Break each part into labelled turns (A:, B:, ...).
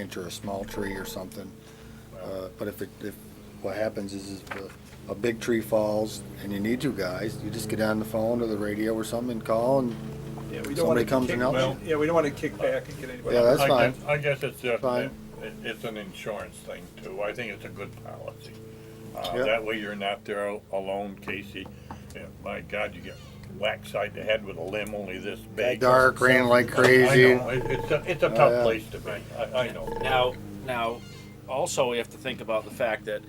A: inch or a small tree or something. Uh, But if, it- if, what happens is, is a- a big tree falls and you need you guys, you just get on the phone or the radio or something and call and,
B: Yeah, we
A: Somebody
B: don't want to
A: comes
B: kick,
A: and helps
B: yeah, we don't want to kick back and get anybody.
A: Yeah, that's
C: I
A: fine.
C: guess- I guess it's, uh,
A: Fine.
C: it, it's an insurance thing too. I think it's a good policy. Uh,
A: Yeah.
C: that way you're not there al- alone, Casey. Yeah, My God, you get whacked side the head with a limb only this big.
A: dark, rain like crazy. Oh,
C: I know, it- it's a, it's a
A: yeah.
C: tough place to be, I, I know.
D: Now, now, also we have to think about the fact that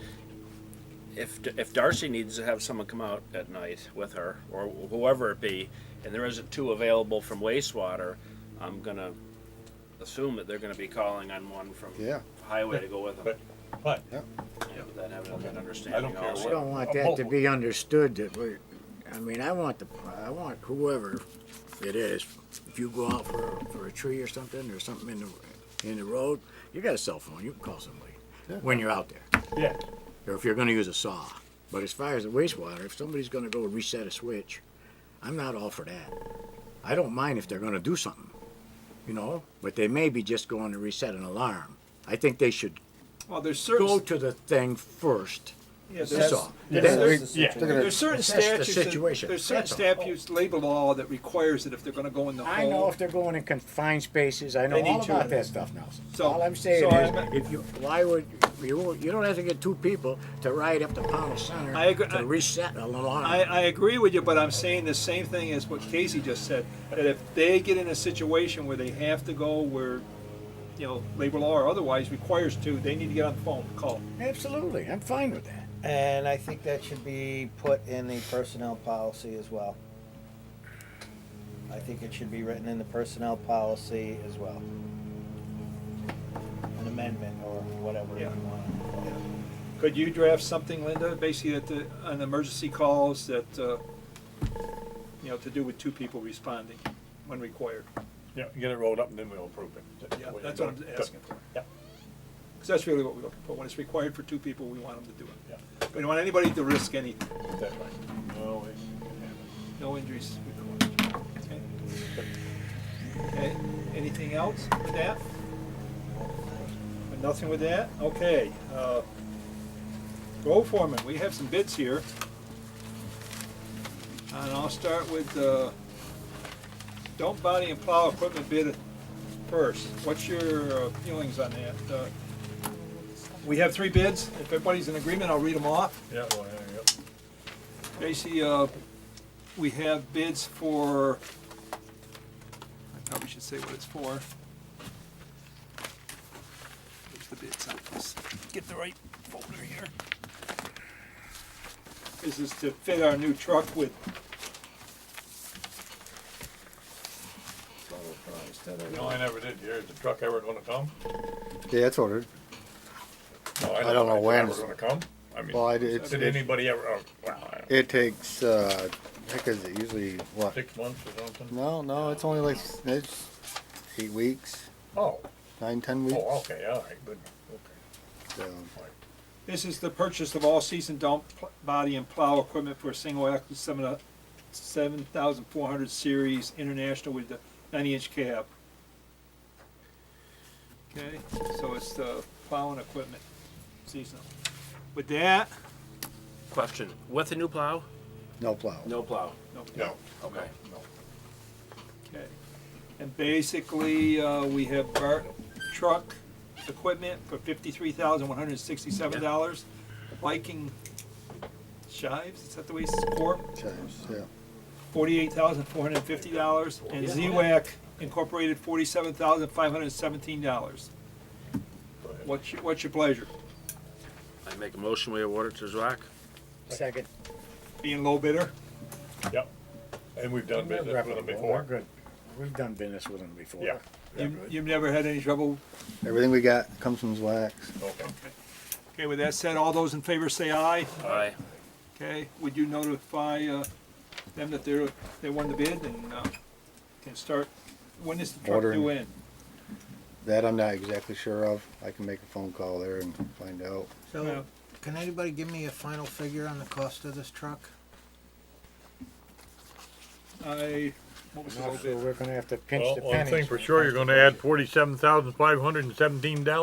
D: if, if Darcy needs to have someone come out at night with her, or whoever it be, and there isn't two available from wastewater, I'm gonna assume that they're gonna be calling on one from
A: Yeah.
D: highway to go with them.
C: But, but,
D: Yeah, but that having an
C: I don't
D: understanding
C: care
D: also.
C: what-
E: I don't want that to be understood that we, I mean, I want the, I want whoever it is, if you go out for, for a tree or something, or something in the, in the road, you got a cell phone, you can call somebody when you're out there,
C: yeah,
E: or if you're gonna use a saw. But as far as the wastewater, if somebody's gonna go reset a switch, I'm not all for that. I don't mind if they're gonna do something, you know, but they may be just going to reset an alarm. I think they should
B: Well, there's
E: go
B: certain,
E: to the thing first.
B: yeah,
E: That's
B: there's,
E: all.
B: there's-
A: Yeah, we-
B: there's-
C: yeah.
A: they're gonna-
B: there's certain
E: Assess the
B: statutes, that-
E: situation.
B: there's certain
E: That's all.
B: statutes, labor law that requires that if they're going to go in the
E: I know
B: hole.
E: if they're going in confined spaces, I know
B: They need
E: all
B: to.
E: about that stuff, Nelson.
B: So-
E: All I'm saying
B: so
E: is,
B: I'm-
E: if you, why would, you, won't- you don't have to get two people to ride up to Pownell Center
B: I agree- I-
E: to reset an alarm.
B: I, I agree with you, but I'm saying the same thing as what Casey just said, that if they get in a situation where they have to go where, you know, labor law or otherwise requires to, they need to get on the phone, call.
E: Absolutely, I'm fine with that.
F: And I think that should be put in the personnel policy as well. I think it should be written in the personnel policy as well. An amendment or whatever you
B: Yeah.
F: want.
B: Could you draft something, Linda, basically that the, on emergency calls that, uh, you know, to do with two people responding when required?
C: yeah, get it rolled up and then we'll approve it.
B: Yeah, that's what I'm asking for.
C: Yeah.
B: Because that's really what we're looking for. When it's required for two people, we want them to do it.
C: Yeah.
B: We don't want anybody to risk any,
C: That way. No, it's-
B: no injuries required. Okay? Okay, anything else with that? With Nothing with that? Okay. uh, Road foreman, we have some bids here. And I'll start with the dump body and plow equipment bid first. What's your uh, feelings on that? Uh, We have three bids. If everybody's in agreement, I'll read them off.
C: Yeah, well, yeah, yeah.
B: Tracy, uh, we have bids for, I probably should say what it's for. There's the bids on this. Get the right folder here. This is to fit our new truck with.
C: No, I never did. Here's the truck ever gonna come?
A: Yeah, that's ordered.
C: No,
A: I don't know
C: It's
A: when.
C: Ever gonna come? I mean.
A: Well, I, it's,
C: Did anybody ever, oh, wow, I don't know,
A: it takes, uh, heck is it usually, what?
C: six months or something?
A: No, no, it's only like, it's eight weeks,
C: Oh,
A: nine, ten weeks.
C: oh, okay, all right, good, okay.
A: so.
B: This is the purchase of all-season dump pl- body and plow equipment for a single axle seven, uh, seven thousand four hundred series international with the ninety-inch cab. Okay, so it's the plowing equipment, seasonal. With that,
D: Question, with a new plow?
A: No plow.
D: No plow.
B: no,
C: No,
D: Okay.
B: okay. And basically, uh, we have Bart truck equipment for fifty-three thousand one hundred sixty-seven dollars. Viking shives, is that the way it's called?
A: Chimes, yeah.
B: forty-eight thousand four hundred and fifty dollars, and Z-WAC Incorporated forty-seven thousand five hundred and seventeen dollars. What's your, what's your pleasure?
D: I make a motion, we award it to Zwack?
E: Second.
B: Being low bidder?
C: yep. And we've done business with them
E: We're
C: before.
E: good. We've done business with them before.
C: Yeah.
E: They're
B: You,
E: good.
B: you've never had any trouble?
A: Everything we got comes from Zwax.
C: Okay.
B: Okay, with that said, all those in favor say aye.
D: Aye.
B: Okay, would you notify, uh, them that they're, they won the bid and, uh, can start, when is the truck
A: Ordering.
B: due in?
A: That I'm not exactly sure of. I can make a phone call there and find out.
B: Yeah.
F: So, can anybody give me a final figure on the cost of this truck?
B: Uh, I, what was the low
E: So
B: bid?
E: we're gonna have to pinch
C: Well,
E: the pennies.
C: one thing for sure, you're gonna add forty-seven thousand five hundred and seventeen dollars